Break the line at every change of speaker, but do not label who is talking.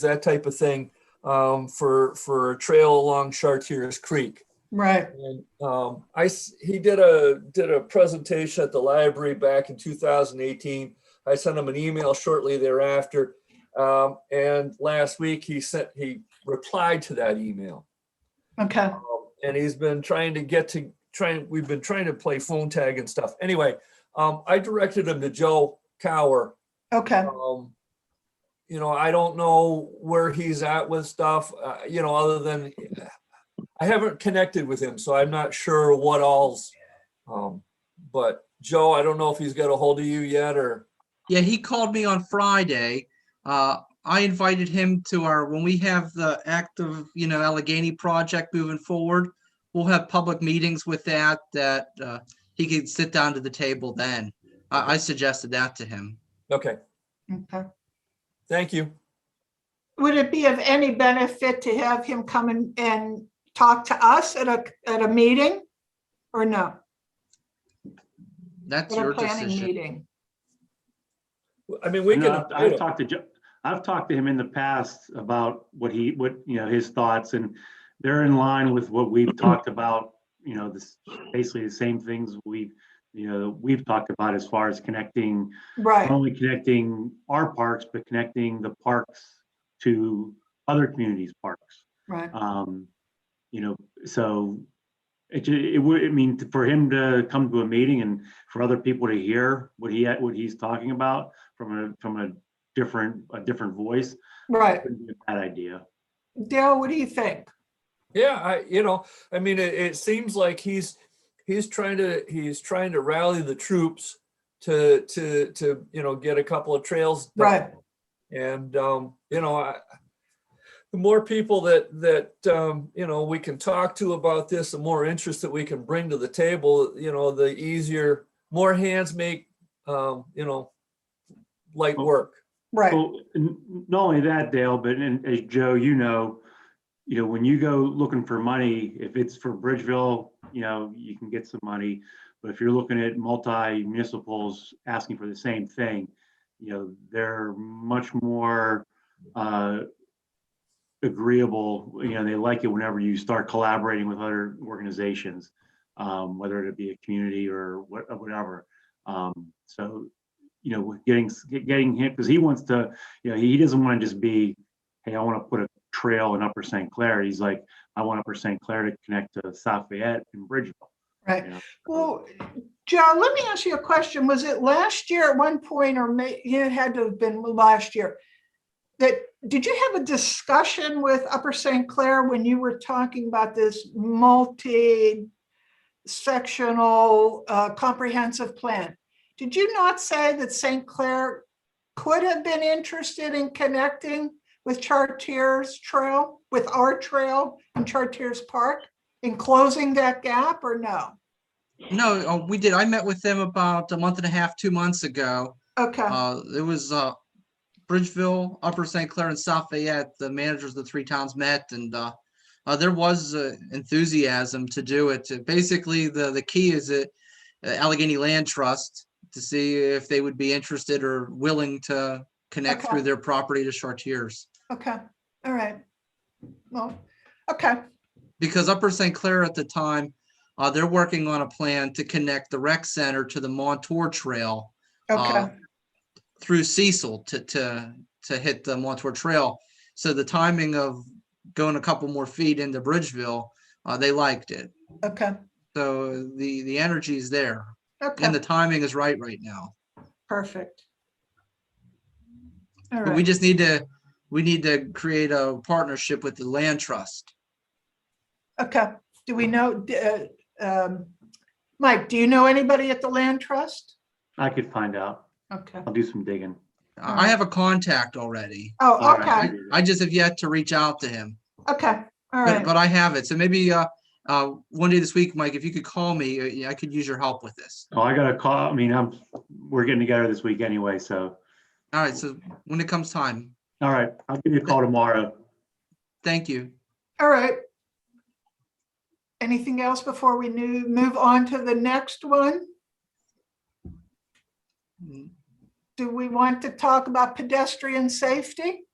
that type of thing um, for for a trail along Chartiers Creek.
Right,
And um, I s- he did a did a presentation at the library back in 2018. I sent him an email shortly thereafter, um, and last week he sent he replied to that email.
okay,
Um, and he's been trying to get to trying. We've been trying to play phone tag and stuff. Anyway, um, I directed him to Joe Cower
okay,
um, you know, I don't know where he's at with stuff, uh, you know, other than I haven't connected with him, so I'm not sure what all's. Um, but Joe, I don't know if he's got a hold of you yet or,
Yeah, he called me on Friday. Uh, I invited him to our, when we have the active, you know, Allegheny project moving forward, we'll have public meetings with that, that, uh, he could sit down to the table then. I, I suggested that to him.
okay,
okay.
thank you.
Would it be of any benefit to have him come and, and talk to us at a, at a meeting? Or no,
That's
at a
your
planning
decision.
meeting?
I mean, we
I
can.
know uh, I've I've
update him.
talked to, Jo- I've talked to him in the past about what he, what, you know, his thoughts and they're in line with what we've talked about, you know, this, basically the same things we, you know, we've talked about as far as connecting, not
Right,
only connecting our parks, but connecting the parks to other communities' parks.
right,
Um, you know, so it, ju- it would, I mean, for him to come to a meeting and for other people to hear what he, what he's talking about from a, from a different, a different voice,
right.
wouldn't be a bad idea.
Dale, what do you think?
Yeah, I, you know, I mean, it, it seems like he's, he's trying to, he's trying to rally the troops to, to, to, you know, get a couple of trails. done.
Right,
And, um, you know, I, the more people that, that, um, you know, we can talk to about this, the more interest that we can bring to the table, you know, the easier, more hands make, um, you know, light work.
right,
Well, n- n- not only that, Dale, but and as Joe, you know, you know, when you go looking for money, if it's for Bridgeville, you know, you can get some money. But if you're looking at multi municipals asking for the same thing, you know, they're much more uh, agreeable. You know, they like it whenever you start collaborating with other organizations, um, whether it be a community or what, whatever. Um, so, you know, getting getting him because he wants to you know, he doesn't want to just be, hey, I want to put a trail in Upper St. Clair. He's like, I want Upper St. Clair to connect to South Fayette and Bridgeville.
right.
you know?
Well, Joe, let me ask you a question. Was it last year at one point, or may, it had to have been last year? That, did you have a discussion with Upper St. Clair when you were talking about this multi-sectional uh, comprehensive plan? Did you not say that St. Clair could have been interested in connecting with Chartiers Trail, with our trail and Chartiers Park? In closing that gap or no?
No, uh, we did. I met with them about a month and a half, two months ago.
Okay.
Uh, it was, uh, Bridgeville, Upper St. Clair and South Fayette, the managers of the three towns met and, uh, uh, there was uh, enthusiasm to do it. Uh, Basically, the, the key is that uh, Allegheny Land Trust to see if they would be interested or willing to connect
Okay.
through their property to Chartiers.
Okay, all right. Well, okay,
because Upper St. Clair at the time, uh, they're working on a plan to connect the rec center to the Montour Trail
okay,
Uh, through Cecil to, to, to hit the Montour Trail. So the timing of going a couple more feet into Bridgeville, uh, they liked it.
okay,
So the, the energy is there and
okay,
the timing is right right now.
perfect. All
But we
right,
just need to, we need to create a partnership with the land trust.
okay. Do we know, d- uh, um, Mike, do you know anybody at the land trust?
I could find out.
Okay,
I'll do some digging.
I I have a contact already.
oh,
All right.
okay,
I just have yet to reach out to him.
okay, all
But,
right,
but I have it. So maybe uh, uh, one day this week, Mike, if you could call me, uh, yeah, I could use your help with this.
Oh, I got a call. I mean, I'm, we're getting together this week anyway, so,
All right. So when it comes time,
all right, I'll give you a call tomorrow.
thank you.
all right. Anything else before we nu- move on to the next one?
Mm,
Do we want to talk about pedestrian safety?